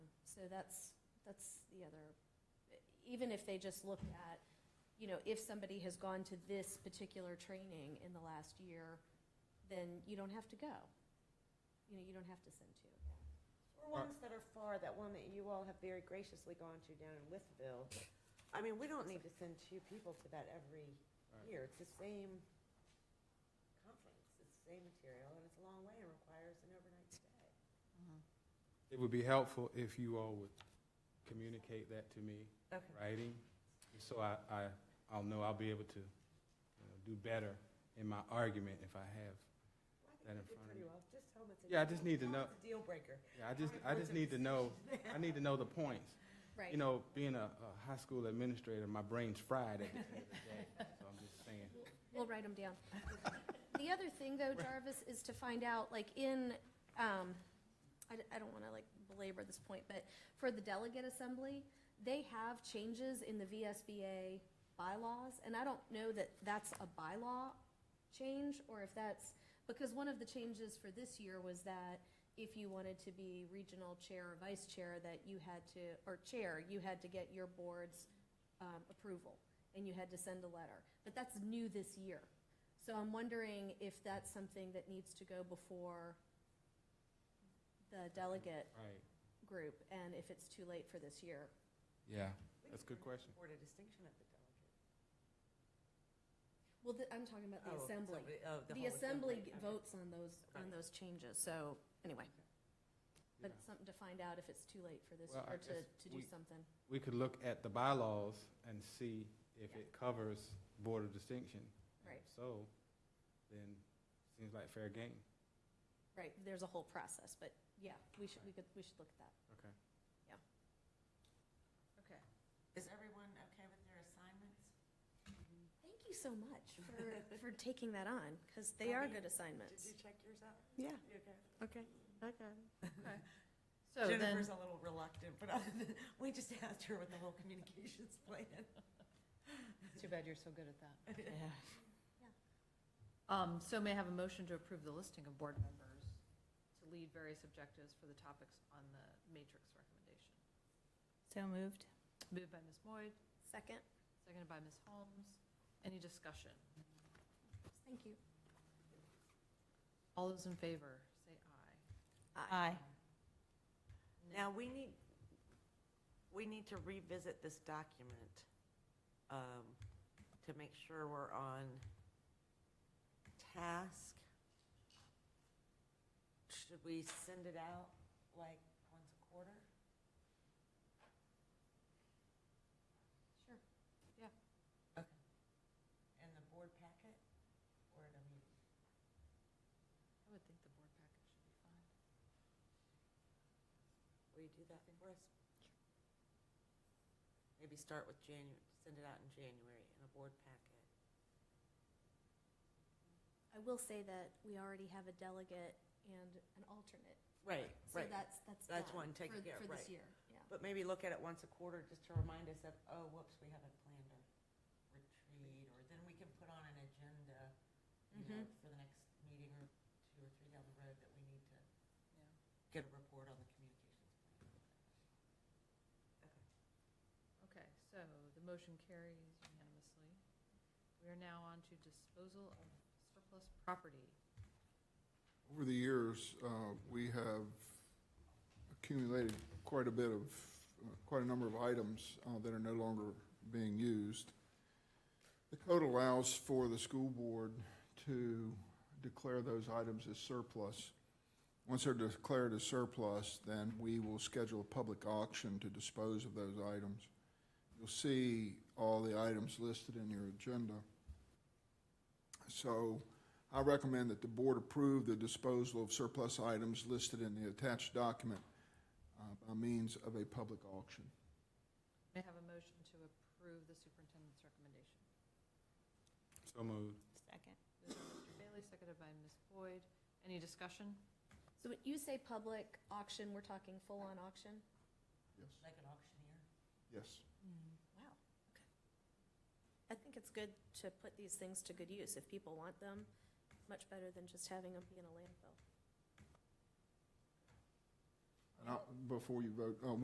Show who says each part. Speaker 1: So that's, that's the other, even if they just looked at, you know, if somebody has gone to this particular training in the last year, then you don't have to go. You know, you don't have to send two.
Speaker 2: Or
Speaker 3: Uh,
Speaker 2: ones that are far, that one that you all have very graciously gone to down in Withville. I mean, we don't need to send two people to that every
Speaker 3: Right.
Speaker 2: year. It's the same conference, it's the same material, and it's a long way and requires an overnight stay.
Speaker 3: It would be helpful if you all would communicate that to me, in writing, so I, I, I'll know I'll be able to, you know, do better in my argument if I have.
Speaker 2: Well, I think you
Speaker 3: That in
Speaker 2: did
Speaker 3: front of
Speaker 2: pretty
Speaker 3: me.
Speaker 2: well. Just tell them it's a.
Speaker 3: Yeah, I just need to
Speaker 2: tell them
Speaker 3: know-
Speaker 2: It's a deal breaker.
Speaker 3: Yeah, I just, I just need to know, I need to know the points.
Speaker 1: Right.
Speaker 3: You know, being a, a high school administrator, my brain's fried at the end of the day, so I'm just saying.
Speaker 1: We'll write them down. The other thing, though, Jarvis, is to find out, like, in, um, I, I don't wanna like belabor this point, but for the delegate assembly, they have changes in the VSBA bylaws, and I don't know that that's a bylaw change, or if that's, because one of the changes for this year was that if you wanted to be regional chair or vice chair, that you had to, or chair, you had to get your board's, um, approval, and you had to send a letter. But that's new this year. So I'm wondering if that's something that needs to go before the delegate
Speaker 3: Right,
Speaker 1: group, and if it's too late for this year.
Speaker 3: yeah,
Speaker 2: We
Speaker 3: that's a
Speaker 2: could
Speaker 3: good
Speaker 2: bring
Speaker 3: question.
Speaker 2: forward a distinction at the delegate.
Speaker 1: Well, the- I'm talking about
Speaker 2: Oh,
Speaker 1: the assembly.
Speaker 2: somebody- oh,
Speaker 1: The
Speaker 2: whole
Speaker 1: assembly
Speaker 2: Okay.
Speaker 1: votes on those, on
Speaker 2: Okay.
Speaker 1: those changes, so, anyway. But
Speaker 3: Yeah.
Speaker 1: it's something to find out if it's too late for this
Speaker 3: Well, I
Speaker 1: year
Speaker 3: guess
Speaker 1: to, to do
Speaker 3: we-
Speaker 1: something.
Speaker 3: We could look at the bylaws and see if it covers board of distinction. And
Speaker 1: Right.
Speaker 3: if So, then, seems like fair game.
Speaker 1: Right, there's a whole process, but yeah, we should, we could, we should look at that.
Speaker 3: Okay.
Speaker 2: Okay. Is everyone okay with their assignments?
Speaker 1: Thank you so much for, for taking that on, because they are good
Speaker 2: Did
Speaker 1: assignments.
Speaker 2: you check yours out?
Speaker 4: Yeah,
Speaker 2: You okay?
Speaker 4: okay, okay.
Speaker 1: So then,
Speaker 2: Jennifer's a little reluctant, but other than, we just asked her with the whole communications plan.
Speaker 5: Too bad you're so good at that.
Speaker 1: Yeah.
Speaker 5: Um, so may I have a motion to approve the listing of board members to lead various objectives for the topics on the matrix recommendation?
Speaker 4: So moved.
Speaker 5: Moved by Ms. Boyd,
Speaker 1: second,
Speaker 5: seconded by Ms. Holmes. Any discussion?
Speaker 1: thank you.
Speaker 5: All those in favor, say aye.
Speaker 4: Aye.
Speaker 2: Now, we need, we need to revisit this document um, to make sure we're on task. Should we send it out like once a quarter?
Speaker 1: Sure.
Speaker 2: In the board packet or in a meeting?
Speaker 5: I would think the board package should be fine.
Speaker 2: Will you do that for us? Maybe start with Janu, send it out in January in a board packet.
Speaker 1: I will say that we already have a delegate and an alternate,
Speaker 2: Right,
Speaker 1: so
Speaker 2: right.
Speaker 1: that's, that's
Speaker 2: That's
Speaker 1: done
Speaker 2: one, take
Speaker 1: for-
Speaker 2: care,
Speaker 1: For this
Speaker 2: right.
Speaker 1: year, yeah.
Speaker 2: But maybe look at it once a quarter, just to remind us of, oh, whoops, we haven't planned a retreat, or then we can put on an agenda, you know, for the next meeting or two or three down the road that we need to
Speaker 5: Yeah.
Speaker 2: get a report on the communications plan.
Speaker 5: Okay, so the motion carries unanimously. We are now on to disposal of surplus property.
Speaker 6: Over the years, uh, we have accumulated quite a bit of, uh, quite a number of items uh, that are no longer being used. The code allows for the school board to declare those items as surplus. Once they're declared as surplus, then we will schedule a public auction to dispose of those items. You'll see all the items listed in your agenda. So, I recommend that the board approve the disposal of surplus items listed in the attached document uh, by means of a public auction.
Speaker 5: May I have a motion to approve the superintendent's recommendation?
Speaker 3: So moved.
Speaker 4: Second.
Speaker 5: Moved by Mr. Bailey, seconded by Ms. Boyd. Any discussion?
Speaker 1: So when you say public auction, we're talking full-on auction?
Speaker 6: Yes.
Speaker 2: Like an auctioneer?
Speaker 6: Yes.
Speaker 1: Wow, okay. I think it's good to put these things to good use if people want them, much better than just having them be in a landfill.
Speaker 6: And I- Before you vote, uh,